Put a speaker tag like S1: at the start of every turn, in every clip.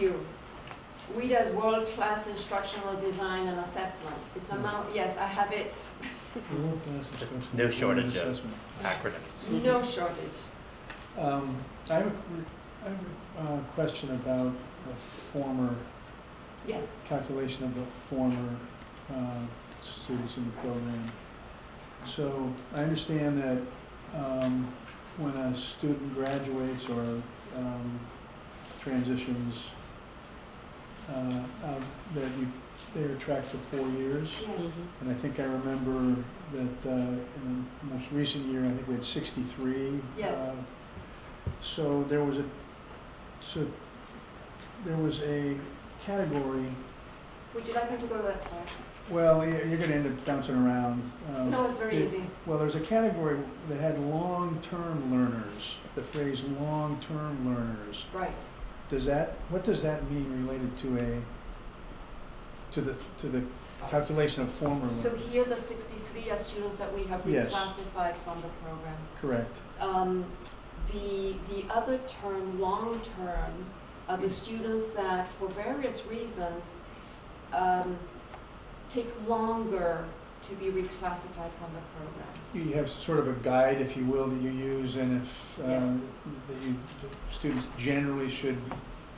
S1: you. We does world-class instructional design and assessment. It's a
S2: Mm.
S1: mount, yes, I have it,
S2: World-class
S3: Just
S2: instruction
S3: no
S2: and
S3: shortage of-
S2: assessment.
S3: acronyms.
S1: no shortage.
S2: Um, I have, a- I have a uh, question about the former,
S1: Yes,
S2: calculation of the former uh, students in the program. So I understand that um, when a student graduates or um, transitions, uh, out, that you, they're tracked for four years.
S1: yes.
S2: And I think I remember that uh, in the most recent year, I think we had 63.
S1: Yes.
S2: uh, So there was a, so there was a category,
S1: Would you like me to go to that slide?
S2: well, y- you're going to end up bouncing around. um,
S1: No, it's very
S2: it-
S1: easy.
S2: Well, there's a category that had long-term learners, the phrase long-term learners.
S1: Right.
S2: Does that, what does that mean related to a, to the, to the calculation of former
S1: So
S2: learners?
S1: here, the sixty-three are students that we have
S2: Yes.
S1: reclassified from the program.
S2: Correct.
S1: Um, the, the other term, long term, are the students that for various reasons, s- um, take longer to be reclassified from the program.
S2: You have sort of a guide, if you will, that you use, and if, uh,
S1: Yes.
S2: that you, that students generally should,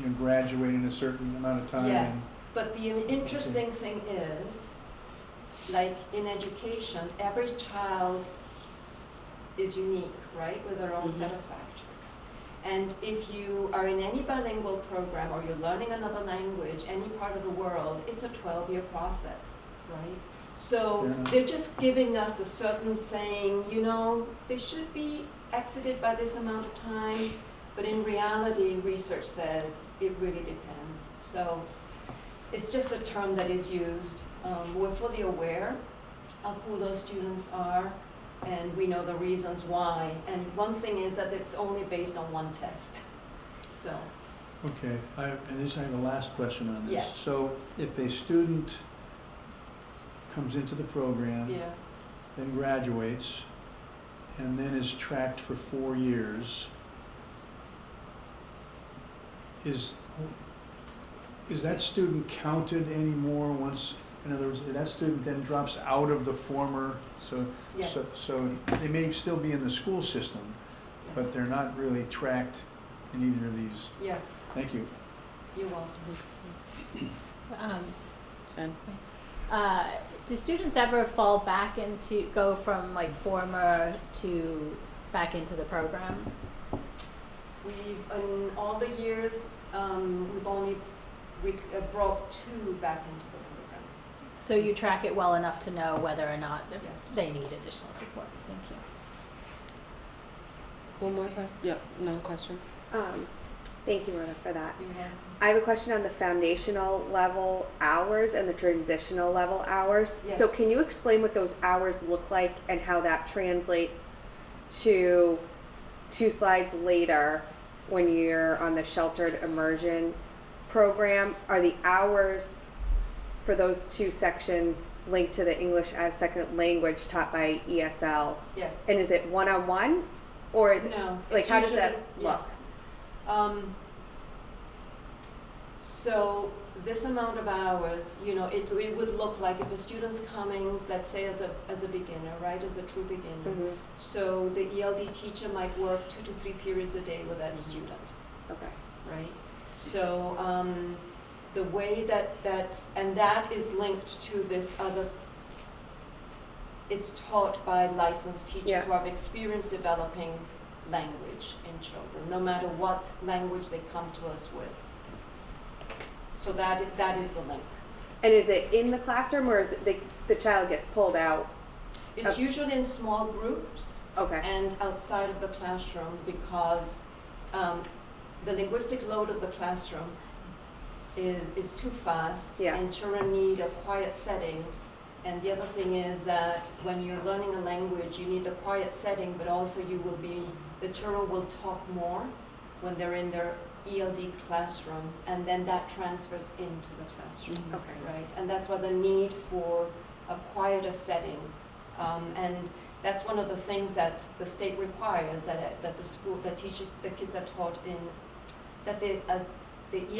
S2: you know, graduate in a certain amount of time. and-
S1: Yes, but the interesting thing is, like in education, every child is unique, right, with their own set
S4: Mhm.
S1: of factors. And if you are in any bilingual program or you're learning another language, any part of the world, it's a twelve-year process, right? So
S2: Fair enough.
S1: they're just giving us a certain saying, you know, they should be exited by this amount of time, but in reality, research says it really depends. So it's just a term that is used. Um, We're fully aware of who those students are, and we know the reasons why. And one thing is that it's only based on one test, so.
S2: Okay, I, and this, I have a last question on this.
S1: Yes.
S2: So if a student comes into the program,
S1: Yeah,
S2: then graduates, and then is tracked for four years, is, is that student counted anymore once, in other words, that student then drops out of the former, so,
S1: yes.
S2: so, so they may still be in the school system, but
S1: yes,
S2: they're not really tracked in either of these.
S1: Yes,
S2: Thank you.
S1: you will.
S4: Um, uh, do students ever fall back into, go from like former to back into the program?
S1: We've, in all the years, um, we've only re- uh, brought two back into the program.
S4: So you track it well enough to know whether or not if
S1: Yes.
S4: they need additional support. Thank you.
S5: One more question? Yeah, another question.
S6: Um, thank you, Rhoda, for that.
S1: You have,
S6: I have a question on the foundational level hours and the transitional level hours.
S1: Yes.
S6: So can you explain what those hours look like and how that translates to two slides later when you're on the sheltered immersion program? Are the hours for those two sections linked to the English as second language taught by ESL?
S1: yes.
S6: And is it one-on-one or is it
S1: No.
S6: like,
S1: it's
S6: how does that
S1: usually-
S6: look?
S1: yes. Um, so this amount of hours, you know, it, it would look like if a student's coming, let's say as a, as a beginner, right, as a true beginner.
S6: Mhm.
S1: So the ELD teacher might work two to three periods a day with that
S5: Mhm.
S6: Mm-hmm.
S1: student.
S6: Okay.
S1: right? So, um, the way that, that, and that is linked to this other, it's taught by licensed teachers
S6: Yeah.
S1: who have experience developing language in children, no matter what language they come to us with. So that, that is the link.
S6: And is it in the classroom or is it the, the child gets pulled out?
S1: It's
S6: Okay.
S1: usually in small groups
S6: Okay.
S1: and outside of the classroom because, um, the linguistic load of the classroom is, is too fast.
S6: Yeah.
S1: And children need a quiet setting. And the other thing is that when you're learning a language, you need a quiet setting, but also you will be, the children will talk more when they're in their ELD classroom, and then that transfers into the classroom,
S5: Mhm.
S6: Okay.
S1: right? And that's why the need for a quieter setting. Um, and that's one of the things that the state requires, that, that the school, the teacher, the kids are taught in, that they, uh, the